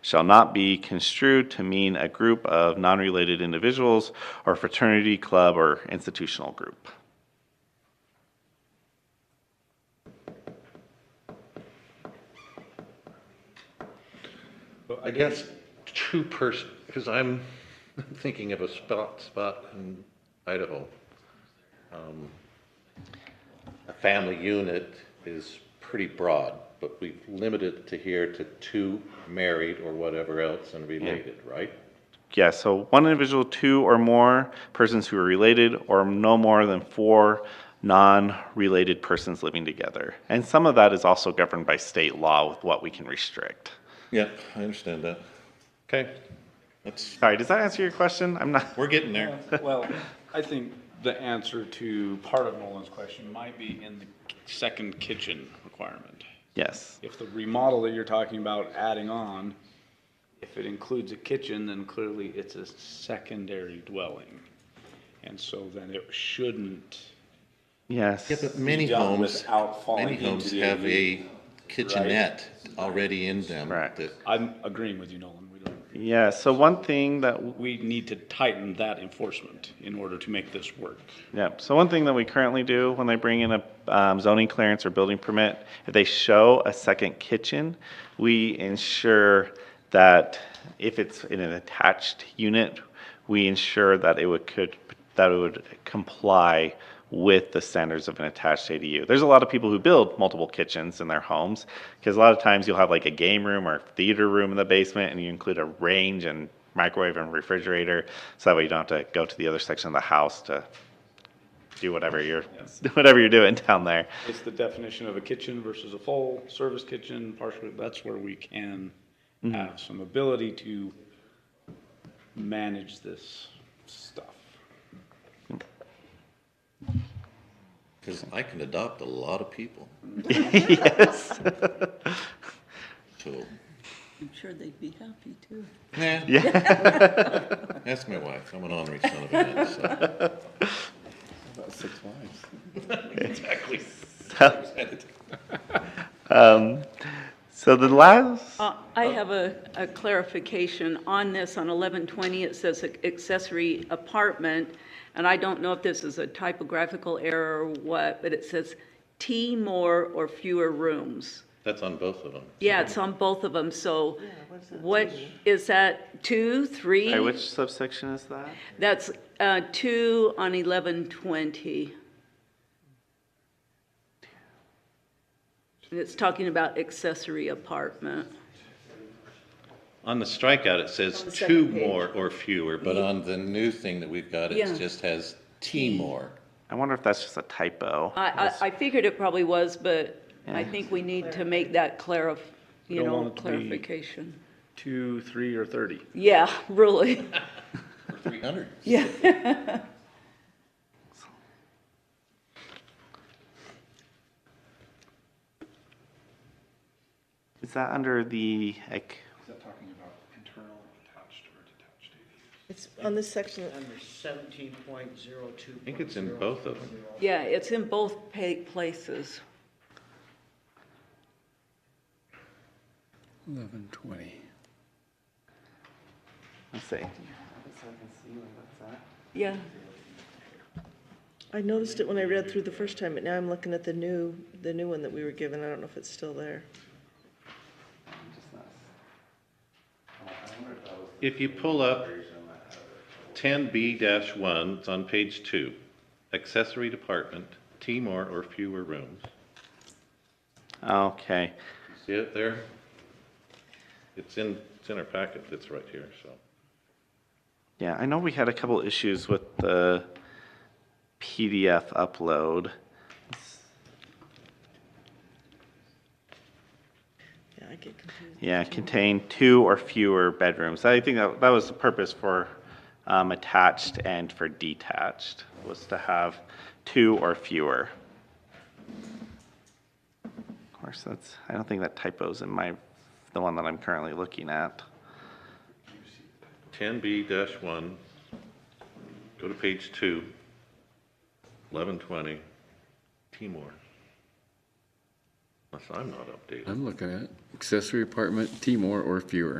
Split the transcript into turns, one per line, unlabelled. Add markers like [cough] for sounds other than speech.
shall not be construed to mean a group of non-related individuals or fraternity, club, or institutional group.
Well, I guess two person, because I'm [laughs] thinking of a spot, spot in Idaho. Um, A family unit is pretty broad, but we've limited it to here to two married or whatever else and related, right?
Yeah, so one individual, two or more persons who are related, or no more than four non-related persons living together. And some of that is also governed by state law with what we can restrict.
Yeah, I understand that. Okay,
That's,
Sorry, does that answer your question? I'm not,
we're getting there.
Well, I think the answer to part of Nolan's question might be in the second kitchen requirement.
yes,
If the remodel that you're talking about adding on, if it includes a kitchen, then clearly it's a secondary dwelling. And so then it shouldn't,
yes.
yeah, but many
Be done
homes,
without falling
many homes
into the-
have a kitchenette already in them.
Right.
that-
I'm agreeing with you, Nolan, we don't,
Yeah, so one thing that
we need to tighten that enforcement in order to make this work.
Yep. So one thing that we currently do when they bring in a um, zoning clearance or building permit, if they show a second kitchen, we ensure that if it's in an attached unit, we ensure that it would could that it would comply with the standards of an attached ADU. There's a lot of people who build multiple kitchens in their homes because a lot of times you'll have like a game room or theater room in the basement and you include a range and microwave and refrigerator so that way you don't have to go to the other section of the house to do whatever you're [laughs] whatever you're doing down there.
It's the definition of a kitchen versus a full service kitchen, partial, that's where we can have some ability to manage this stuff.
Because I can adopt a lot of [laughs] people,
yes.
so,
I'm sure they'd be happy too.
nah.
Yeah.
[laughs] That's my wife. I'm an honorary son of a gun, so. [laughs]
Exactly. So, um, so the last
Uh, I have a, a clarification on this, on 1120, it says accessory apartment, and I don't know if this is a typographical error or what, but it says T more or fewer rooms.
That's on both of them.
Yeah, it's on both of them, so what, is that two, three?
Hey, which subsection is that?
That's uh, two on 1120. And it's talking about accessory apartment.
On the strikeout, it says
the
two
second page.
more or fewer, but on the new thing that we've got,
Yeah.
it just has T more.
I wonder if that's just a typo.
I, I, I figured it probably was, but I think we need to make that clarif, you
don't
know,
want it to be-
clarification.
Two, three, or thirty?
Yeah, [laughs]
[laughs]
really,
Three hundred.
yeah.
Is that under the like,
It's on this section,
Under seventeen point zero two. I
think it's in both of them.
Yeah, it's in both pa- places.
Eleven twenty.
let's see.
Yeah,
I noticed it when I read through the first time, but now I'm looking at the new, the new one that we were given, I don't know if it's still there.
If you pull up ten B dash one, it's on page two, accessory department, T more or fewer rooms.
Okay.
See it there? It's in, it's in our packet. It's right here, so.
Yeah, I know we had a couple issues with the PDF upload.
Yeah, I get confused.
Yeah, contain two or fewer bedrooms. I think that, that was the purpose for um, attached and for detached, was to have two or fewer. Of course, that's, I don't think that typo's in my, the one that I'm currently looking at.
Ten B dash one, go to page two, eleven twenty, T more. Unless I'm not updated.
I'm looking at accessory apartment, T more or fewer.